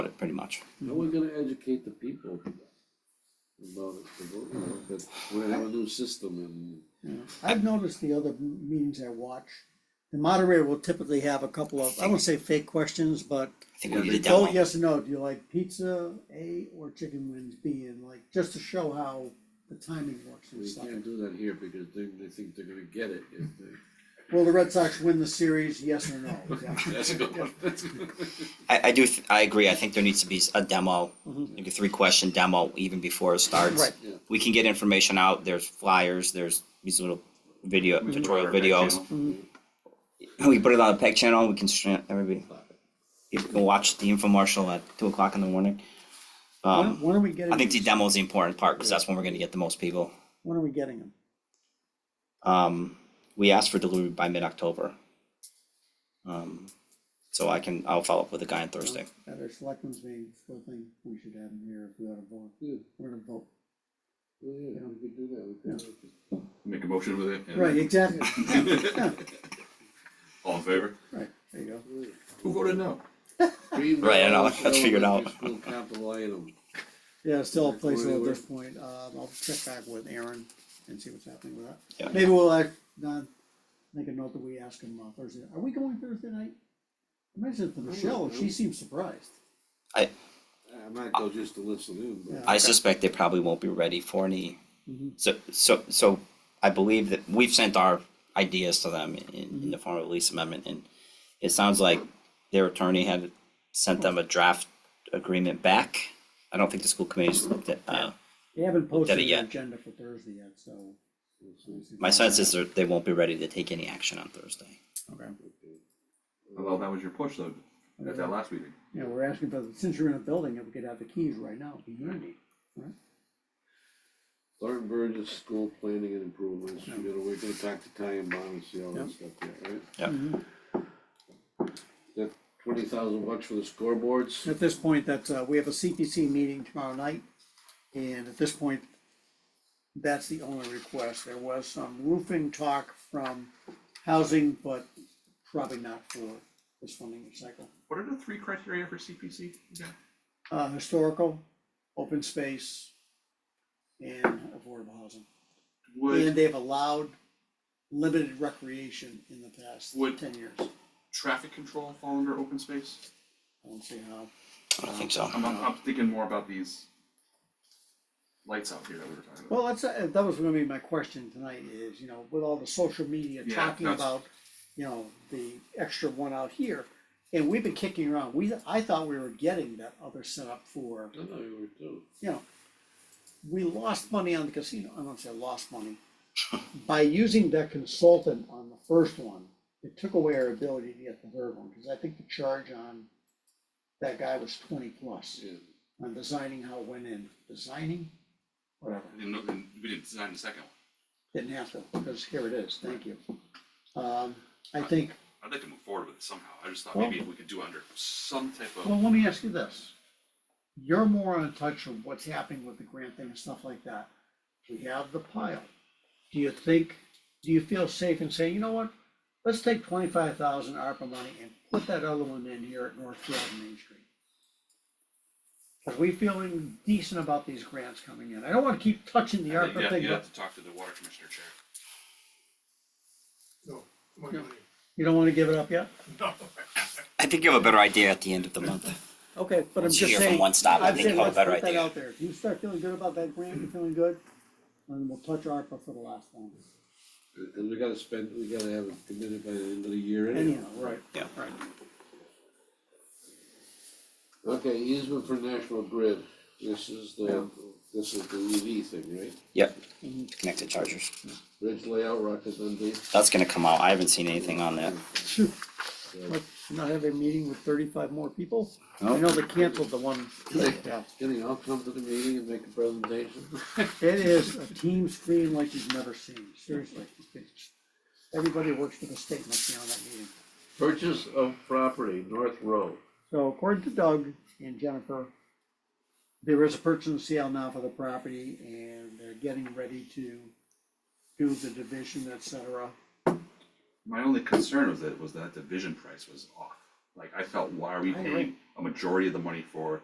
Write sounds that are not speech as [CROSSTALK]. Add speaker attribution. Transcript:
Speaker 1: it pretty much.
Speaker 2: How are we gonna educate the people about it, the vote, you know, that we have a new system and
Speaker 3: Yeah. I've noticed the other m- meetings I watch, the moderator will typically have a couple of, I won't say fake questions, but
Speaker 1: I think we
Speaker 2: Yeah,
Speaker 1: need a
Speaker 2: they
Speaker 3: vote
Speaker 1: demo.
Speaker 3: yes or no, do you like pizza A or chicken wings B? And like, just to show how the timing works and
Speaker 2: we
Speaker 3: stuff.
Speaker 2: can't do that here because they, they think they're gonna get it if they.
Speaker 3: Will the Red Sox win the series, yes or no? Yeah.
Speaker 2: [LAUGHS] That's a good one.
Speaker 1: I, I do, th- I agree, I think there needs to be a demo,
Speaker 4: Mm-hmm.
Speaker 3: Mhm.
Speaker 1: like a three-question demo even before it starts.
Speaker 3: Right.
Speaker 2: Yeah.
Speaker 1: We can get information out, there's flyers, there's these little video,
Speaker 4: We can
Speaker 1: tutorial
Speaker 4: put it on our back
Speaker 1: videos. Mm-hmm.
Speaker 4: channel.
Speaker 1: We put it on the PEG channel, we can, stream- everybody, people can watch the infomercial at two o'clock in the morning.
Speaker 3: When,
Speaker 1: Um,
Speaker 3: when are we getting?
Speaker 1: I think the
Speaker 3: these?
Speaker 1: demo's the important part, because that's when we're gonna get the most people.
Speaker 3: When are we getting them?
Speaker 1: Um, we asked for delivery by mid-October. Um, so I can, I'll follow up with the guy on Thursday.
Speaker 3: At our selectmen's meeting, still think we should have them here if we ought to vote.
Speaker 2: Yeah,
Speaker 3: We're gonna vote.
Speaker 2: yeah, yeah, we could do that, we could. do that.
Speaker 4: Make a motion with it. and-
Speaker 3: Right, exactly.
Speaker 4: [LAUGHS] All in favor?
Speaker 3: Right, there you go.
Speaker 4: Who voted no?
Speaker 2: Three
Speaker 1: Right, I know,
Speaker 2: miles
Speaker 1: let's figure it out.
Speaker 2: elementary School capital item,
Speaker 3: Yeah, still a
Speaker 2: Or
Speaker 3: placeholder at
Speaker 2: anywhere.
Speaker 3: this point, um, I'll check back with Aaron and see what's happening with
Speaker 1: Yeah.
Speaker 3: that. Maybe we'll, uh, not, make a note that we ask him on Thursday, are we going Thursday night? I mentioned it to Michelle,
Speaker 1: Mm-hmm.
Speaker 3: and she seems surprised.
Speaker 2: I might go just to listen in, but.
Speaker 3: Yeah.
Speaker 1: Mm-hmm. I suspect they probably won't be ready for any,
Speaker 3: Mhm.
Speaker 1: so, so, so I believe that we've sent our ideas to them in, in the form of a lease amendment, and it sounds like their attorney had sent them a draft agreement back. I don't think the school committee's looked at, uh,
Speaker 3: They haven't posted
Speaker 1: Did it
Speaker 3: an
Speaker 1: yet.
Speaker 3: agenda for Thursday yet, so.
Speaker 2: we'll see.
Speaker 1: my sense is that they won't be ready to take any action on Thursday.
Speaker 3: Okay,
Speaker 4: Although that was your push though, at that last meeting.
Speaker 3: yeah, we're asking for, since you're in a building, if we could have the keys right now, it'd be handy.
Speaker 2: Thornton Burgess School Planning and Improvements, we gotta, we're gonna talk to Ty and Bob and see all that
Speaker 3: Yeah.
Speaker 2: stuff there, right?
Speaker 1: Yeah.
Speaker 3: Mm-hmm.
Speaker 2: That twenty thousand bucks for the scoreboards?
Speaker 3: At this point, that's, uh, we have a CPC meeting tomorrow night, and at this point, that's the only request. There was some roofing talk from housing, but probably not for this funding cycle.
Speaker 4: What are the three criteria for CPC? again?
Speaker 3: Uh, historical, open space, and affordable housing. And
Speaker 4: Would
Speaker 3: they've allowed limited recreation in the past
Speaker 4: Would-
Speaker 3: ten years. I
Speaker 4: traffic control fall under open space?
Speaker 3: don't see how.
Speaker 1: I don't think so.
Speaker 4: I'm, I'm, I'm thinking more about these lights out here that we were talking about.
Speaker 3: Well, that's, uh, that was gonna be my question tonight is, you know, with all the social media
Speaker 4: Yeah,
Speaker 3: talking
Speaker 4: that's-
Speaker 3: about, you know, the extra one out here. And we've been kicking around, we, I thought we were getting that other setup for,
Speaker 2: I know you were too.
Speaker 3: you know, we lost money on the casino, I don't say lost
Speaker 4: [LAUGHS]
Speaker 3: money. By using that consultant on the first one, it took away our ability to get the third one, cause I think the charge on that guy was twenty plus
Speaker 2: Yeah.
Speaker 3: on designing how it went in, designing, whatever.
Speaker 4: We didn't, know- we didn't design the second one.
Speaker 3: Didn't have to, because here it is, thank you. Um, I think,
Speaker 4: I'd like to move forward with it somehow. I just thought
Speaker 3: Well-
Speaker 4: maybe if we could do under some type of.
Speaker 3: well, let me ask you this. You're more in touch of what's happening with the grant thing and stuff like that. We have the pile. Do you think, do you feel safe in saying, you know what? Let's take twenty-five thousand ARPA money and put that other one in here at Northfield and Main Street. Are we feeling decent about these grants coming in? I don't wanna keep touching the
Speaker 4: I think
Speaker 3: ARPA
Speaker 4: that-
Speaker 3: thing,
Speaker 4: You'd
Speaker 3: but
Speaker 4: have to talk to the water commissioner chair.
Speaker 5: No, my money,
Speaker 3: you don't wanna give it up yet?
Speaker 5: no.
Speaker 1: I think you have a better idea at the end of the month.
Speaker 3: Okay, but I'm
Speaker 1: Once
Speaker 3: just
Speaker 1: you
Speaker 3: saying.
Speaker 1: hear from one stop, I
Speaker 3: I'm
Speaker 1: think
Speaker 3: saying
Speaker 1: you'll have a
Speaker 3: let's
Speaker 1: better
Speaker 3: put that
Speaker 1: idea.
Speaker 3: out there. If you start feeling good about that grant, you're feeling good, and we'll touch ARPA for the last one.
Speaker 2: And we gotta spend, we gotta have it committed by the end of the year anyway.
Speaker 3: Anyhow, right.
Speaker 1: Yeah.
Speaker 3: Right.
Speaker 2: Okay, easement for National Grid, this is the, this is the EV thing, right?
Speaker 1: Yep, connected chargers.
Speaker 2: Bridge layout, Rocket Dundee,
Speaker 1: That's gonna come out, I haven't seen anything on that.
Speaker 3: Shoot,
Speaker 2: so,
Speaker 3: let's not have a meeting with thirty-five more people? I
Speaker 1: Nope.
Speaker 3: know they canceled the one. Yeah.
Speaker 2: can they all come to the meeting and make a presentation?
Speaker 3: It is a team screen like you've never seen, seriously. It's- Everybody works for the state must be on that meeting.
Speaker 2: Purchase of property, North Road.
Speaker 3: So according to Doug and Jennifer, there is a purchase and sale now for the property and they're getting ready to do the division, et cetera.
Speaker 4: My only concern was that, was that the vision price was off. Like I felt, why are we
Speaker 3: I agree.
Speaker 4: paying a majority of the money for